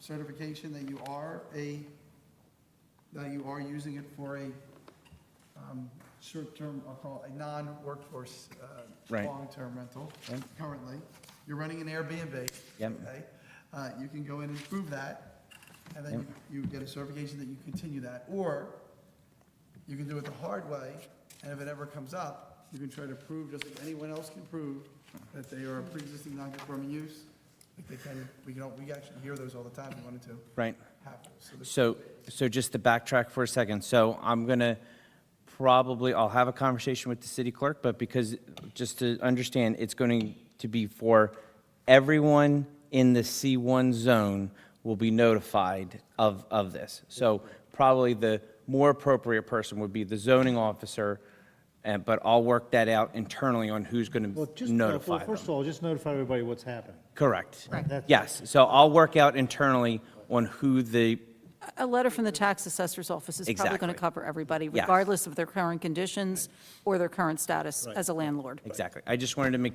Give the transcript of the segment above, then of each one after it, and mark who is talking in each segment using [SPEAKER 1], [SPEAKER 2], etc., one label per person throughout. [SPEAKER 1] certification that you are a, that you are using it for a um, short-term, I'll call it a non-workforce, uh,
[SPEAKER 2] Right.
[SPEAKER 1] long-term rental
[SPEAKER 2] Right.
[SPEAKER 1] currently. You're running an Airbnb.
[SPEAKER 2] Yep.
[SPEAKER 1] okay? Uh, You can go in and prove that, and then you you get a certification that you continue that. Or you can do it the hard way, and if it ever comes up, you can try to prove, just like anyone else can prove, that they are a pre-existing non-conforming use. Like they can, we can, all- we actually hear those all the time, we wanted to
[SPEAKER 2] Right.
[SPEAKER 1] have those. So the-
[SPEAKER 2] So, so just to backtrack for a second, so I'm going to probably, I'll have a conversation with the city clerk, but because, just to understand, it's going to be for everyone in the C1 zone will be notified of, of this. So probably the more appropriate person would be the zoning officer, and, but I'll work that out internally on who's going
[SPEAKER 3] Well,
[SPEAKER 2] to
[SPEAKER 3] just, no,
[SPEAKER 2] notify
[SPEAKER 3] well, first of
[SPEAKER 2] them.
[SPEAKER 3] all, just notify everybody what's happening.
[SPEAKER 2] Correct.
[SPEAKER 3] That's-
[SPEAKER 2] Yes, so I'll work out internally on who the
[SPEAKER 4] A letter from the tax assessor's office is probably going
[SPEAKER 2] Exactly.
[SPEAKER 4] to cover everybody,
[SPEAKER 2] Yes.
[SPEAKER 4] regardless of their current conditions or their current status as a landlord.
[SPEAKER 2] Exactly. I just wanted to make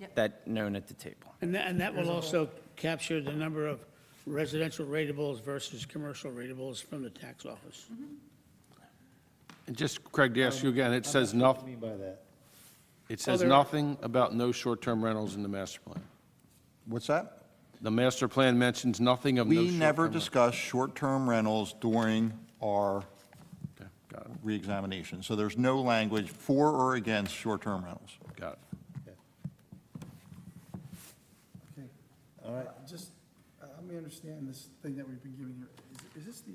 [SPEAKER 4] Yep.
[SPEAKER 2] that known at the table.
[SPEAKER 5] And that, and that will also capture the number of residential ratables versus commercial ratables from the tax office.
[SPEAKER 6] And just, Craig, to ask you again, it says noth,
[SPEAKER 3] What do you mean by that?
[SPEAKER 6] it says
[SPEAKER 5] Other-
[SPEAKER 6] nothing about no short-term rentals in the master plan.
[SPEAKER 7] What's that?
[SPEAKER 6] The master plan mentions nothing of no
[SPEAKER 7] We
[SPEAKER 6] short-term.
[SPEAKER 7] never
[SPEAKER 6] rentals.
[SPEAKER 7] discuss short-term rentals during our
[SPEAKER 6] Okay, Got it,
[SPEAKER 7] reexamination. So there's no language for or against short-term rentals.
[SPEAKER 6] got it.
[SPEAKER 1] Okay. All right. Just, uh, let me understand this thing that we've been giving you. Is- Is this the,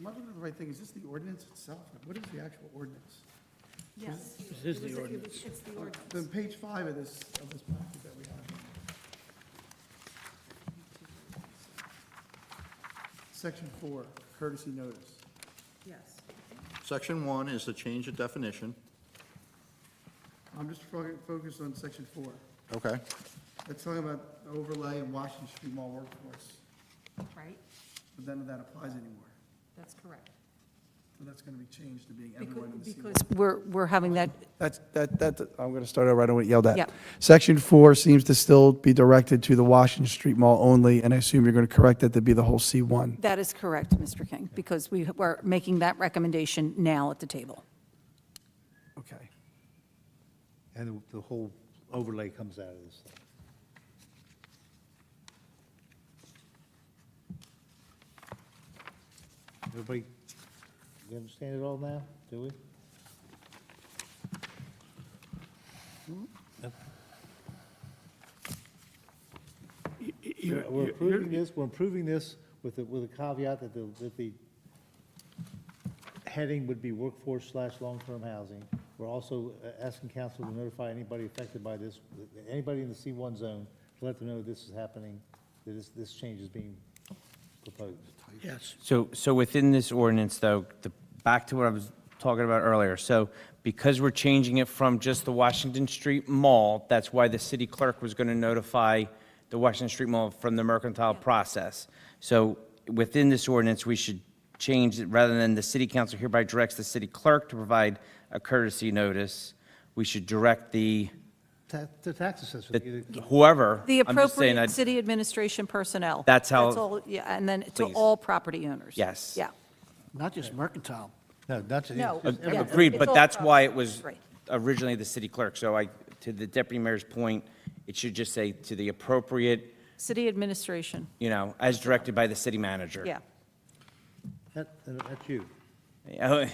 [SPEAKER 1] am I looking at the right thing? Is this the ordinance itself? Like, What is the actual ordinance?
[SPEAKER 4] Yes.
[SPEAKER 5] This is the ordinance.
[SPEAKER 4] It's the ordinance.
[SPEAKER 1] Then page five of this, of this packet that we have. Section four, courtesy notice.
[SPEAKER 4] Yes.
[SPEAKER 7] Section one is the change of definition.
[SPEAKER 1] I'm just fo- focused on section four.
[SPEAKER 7] Okay.
[SPEAKER 1] It's talking about overlay in Washington Street Mall workforce,
[SPEAKER 4] Right,
[SPEAKER 1] but none of that applies anymore.
[SPEAKER 4] that's correct.
[SPEAKER 1] So that's going to be changed to being everyone in the C1.
[SPEAKER 4] We're, we're having that,
[SPEAKER 1] That's, that, that, I'm going to start over, I don't want yelled at.
[SPEAKER 4] Yeah.
[SPEAKER 1] Section four seems to still be directed to the Washington Street Mall only, and I assume you're going to correct that to be the whole C1.
[SPEAKER 4] that is correct, Mr. King, because we are making that recommendation now at the table.
[SPEAKER 1] Okay.
[SPEAKER 3] And the whole overlay comes out of this thing. Everybody, you understand it all now, do we? We're- We're approving this, we're approving this with, a- with a caveat that the, that the heading would be workforce slash long-term housing. We're also uh, asking council to notify anybody affected by this, anybody in the C1 zone, to let them know this is happening, that this, this change is being proposed.
[SPEAKER 5] Yes.
[SPEAKER 2] So, so within this ordinance, though, the, back to what I was talking about earlier, so because we're changing it from just the Washington Street Mall, that's why the city clerk was going to notify the Washington Street Mall from the mercantile process. So within this ordinance, we should change it, rather than the city council hereby directs the city clerk to provide a courtesy notice, we should direct the,
[SPEAKER 3] Ta- The tax assessor.
[SPEAKER 2] the- whoever.
[SPEAKER 4] The
[SPEAKER 2] I'm just saying
[SPEAKER 4] appropriate
[SPEAKER 2] I'd-
[SPEAKER 4] city administration personnel.
[SPEAKER 2] That's how-
[SPEAKER 4] all, Yeah, and then to
[SPEAKER 2] Please.
[SPEAKER 4] all property owners.
[SPEAKER 2] Yes.
[SPEAKER 4] Yeah.
[SPEAKER 5] Not just mercantile.
[SPEAKER 3] No, not to.
[SPEAKER 4] No,
[SPEAKER 2] Uh,
[SPEAKER 3] just
[SPEAKER 4] yeah.
[SPEAKER 3] every-
[SPEAKER 2] Agreed,
[SPEAKER 4] It's
[SPEAKER 2] but
[SPEAKER 4] all
[SPEAKER 2] that's why it
[SPEAKER 4] property.
[SPEAKER 2] was
[SPEAKER 4] Right.
[SPEAKER 2] originally the city clerk. So I, to the deputy mayor's point, it should just say to the appropriate,
[SPEAKER 4] City administration,
[SPEAKER 2] you know, as directed by the city manager.
[SPEAKER 4] yeah.
[SPEAKER 3] That, uh, that's you.
[SPEAKER 2] Yeah.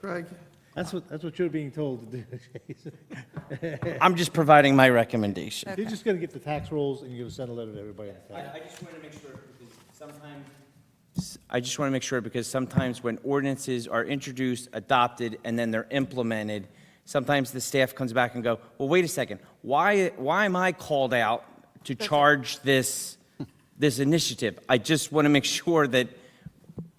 [SPEAKER 1] Craig,
[SPEAKER 3] That's what, that's what you're being told to do, Jason.
[SPEAKER 2] I'm just providing my recommendation.
[SPEAKER 3] You're just gonna get the tax rolls and you're gonna send a letter to everybody in the town.
[SPEAKER 2] just want to make sure because sometimes. I just want to make sure because sometimes when ordinances are introduced, adopted, and then they're implemented, sometimes the staff comes back and go, well, wait a second, why, why am I called out to charge this, this initiative? I just want to make sure that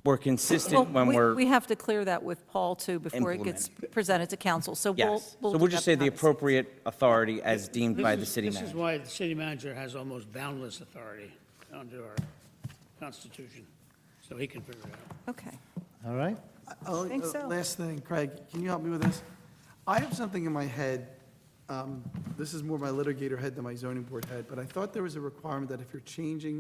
[SPEAKER 2] we're
[SPEAKER 4] Well,
[SPEAKER 2] consistent when
[SPEAKER 4] we-
[SPEAKER 2] we're.
[SPEAKER 4] We have to clear that with Paul, too, before it gets presented to council, so we'll.
[SPEAKER 2] Yes. So
[SPEAKER 4] do
[SPEAKER 2] we'll just say
[SPEAKER 4] that
[SPEAKER 2] the
[SPEAKER 4] behind scenes.
[SPEAKER 2] appropriate authority as deemed by the
[SPEAKER 5] This is-
[SPEAKER 2] city
[SPEAKER 5] This is
[SPEAKER 2] manager.
[SPEAKER 5] why the city manager has almost boundless authority under our constitution, so he can figure it out.
[SPEAKER 4] Okay.
[SPEAKER 3] All right?
[SPEAKER 1] oh,
[SPEAKER 4] think
[SPEAKER 1] uh,
[SPEAKER 4] so.
[SPEAKER 1] last thing, Craig, can you help me with this? I have something in my head, um, this is more my litigator head than my zoning board head, but I thought there was a requirement that if you're changing